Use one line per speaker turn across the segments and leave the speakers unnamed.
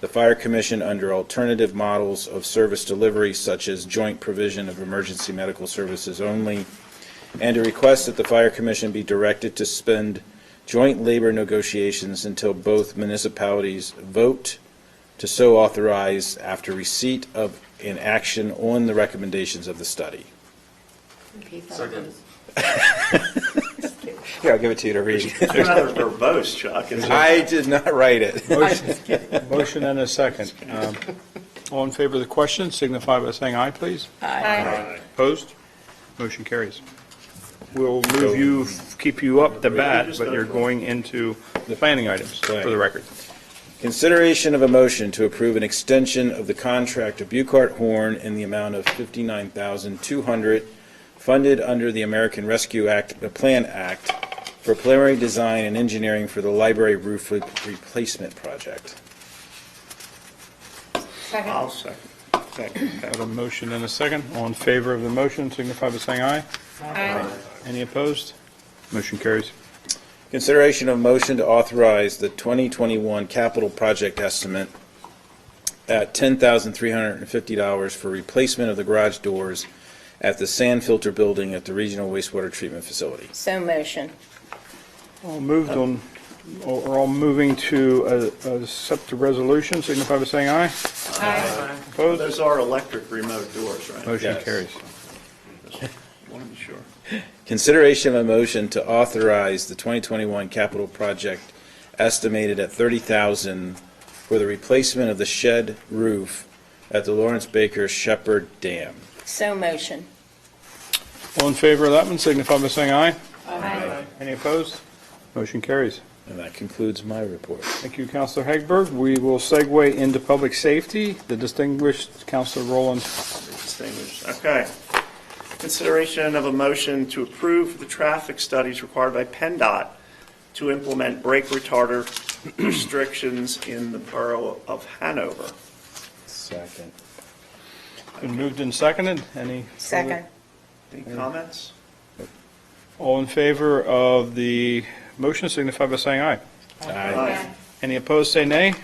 the Fire Commission under alternative models of service delivery such as joint provision of emergency medical services only, and to request that the Fire Commission be directed to suspend joint labor negotiations until both municipalities vote to so authorize after receipt of an action on the recommendations of the study.
Repeat that,
Second.
Here, I'll give it to you to read.
It's rather verbose, Chuck. It's like-
I did not write it.
Motion and a second. Um, All in favor of the question, signify by saying aye, please.
Aye.
Opposed? Motion carries. We'll move you, keep you up the bat, but you're going into the planning items for the record.
Consideration of a motion to approve an extension of the contract of Bucart Horn in the amount of $59,200 funded under the American Rescue Act, the Plan Act, for preliminary design and engineering for the library roof re- replacement project.
Second.
I'll second.
Got a motion and a second. All in favor of the motion, signify by saying aye.
Aye.
Any opposed? Motion carries.
Consideration of motion to authorize the 2021 capital project estimate at $10,350 for replacement of the garage doors at the sand filter building at the Regional Wastewater Treatment Facility.
So motion.
All moved on, or or all moving to uh, accept the resolution, signify by saying aye.
Aye.
Opposed?
Those are electric remote doors, right?
Motion
Yes.
carries.
Wanted to be sure.
Consideration of a motion to authorize the 2021 capital project estimated at 30,000 for the replacement of the shed roof at the Lawrence Baker Shepherd Dam.
So motion.
All in favor of that one, signify by saying aye.
Aye.
Any opposed? Motion carries.
And that concludes my report.
Thank you, Counselor Hagberg. We will segue into public safety. The distinguished Counselor Rowland
Distinguished. Okay. Consideration of a motion to approve the traffic studies required by PennDOT to implement brake retarder restrictions in the borough of Hanover.
Second.
been moved and seconded. Any? further-
Second.
Any comments?
All in favor of the motion signify by saying aye.
Aye.
Any opposed, say nay.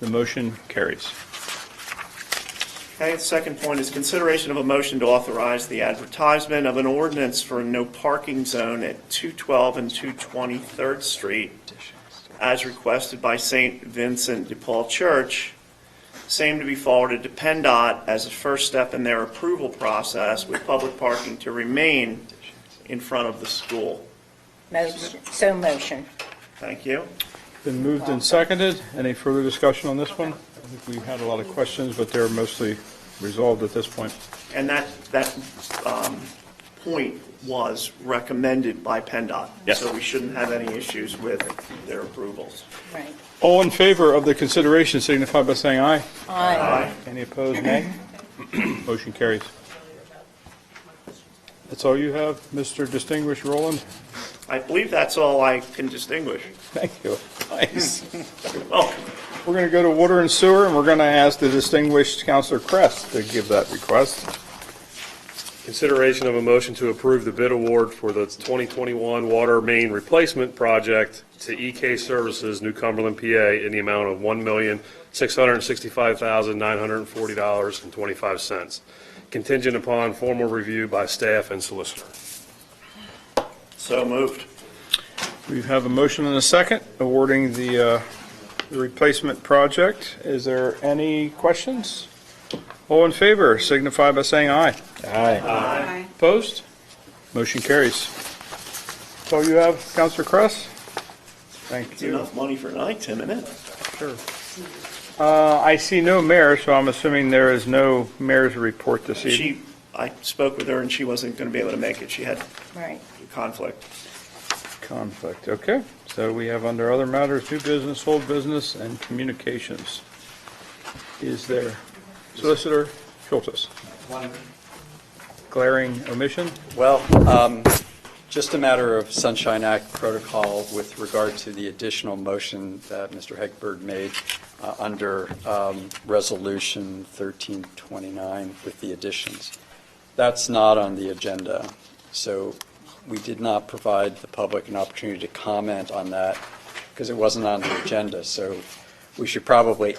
The motion carries.
Okay, the second point is consideration of a motion to authorize the advertisement of an ordinance for a no parking zone at 212 and 220 Third Street as requested by St. Vincent de Paul Church, same to be forwarded to PennDOT as a first step in their approval process with public parking to remain in front of the school.
Motion, so motion.
Thank you.
Been moved and seconded. Any further discussion on this one? I think we had a lot of questions, but they're mostly resolved at this point.
And that, that um, point was recommended by PennDOT.
Yes.
So we shouldn't have any issues with their approvals.
Right.
All in favor of the consideration signify by saying aye.
Aye.
Any opposed, nay? Motion carries. That's all you have, Mr. Distinguished Roland?
I believe that's all I can distinguish. Oh,
Thank you. Nice.
Well,
We're going to go to water and sewer, and we're going to ask the distinguished Counselor Crest to give that request.
Consideration of a motion to approve the bid award for the 2021 water main replacement project to EK Services, New Cumberland, PA, in the amount of $1,665,940.25, contingent upon formal review by staff and solicitor.
so moved.
We have a motion and a second awarding the uh, the replacement project. Is there any questions? All in favor signify by saying aye.
Aye.
Opposed? Motion carries. That's all you have, Counselor Crest? Thank
It's
you.
enough money for tonight, Tim, isn't it?
Uh, I see no mayor, so I'm assuming there is no mayor's report this evening.
She, I spoke with her and she wasn't going to be able to make it. She had
Right.
a conflict.
Conflict, okay. So we have under other matters, new business, old business, and communications. Is there Solicitor Schultes? Glaring omission?
Well, um, just a matter of Sunshine Act protocol with regard to the additional motion that Mr. Hegberg made uh, under um, Resolution 1329 with the additions. That's not on the agenda, so we did not provide the public an opportunity to comment on that because it wasn't on the agenda, so we should probably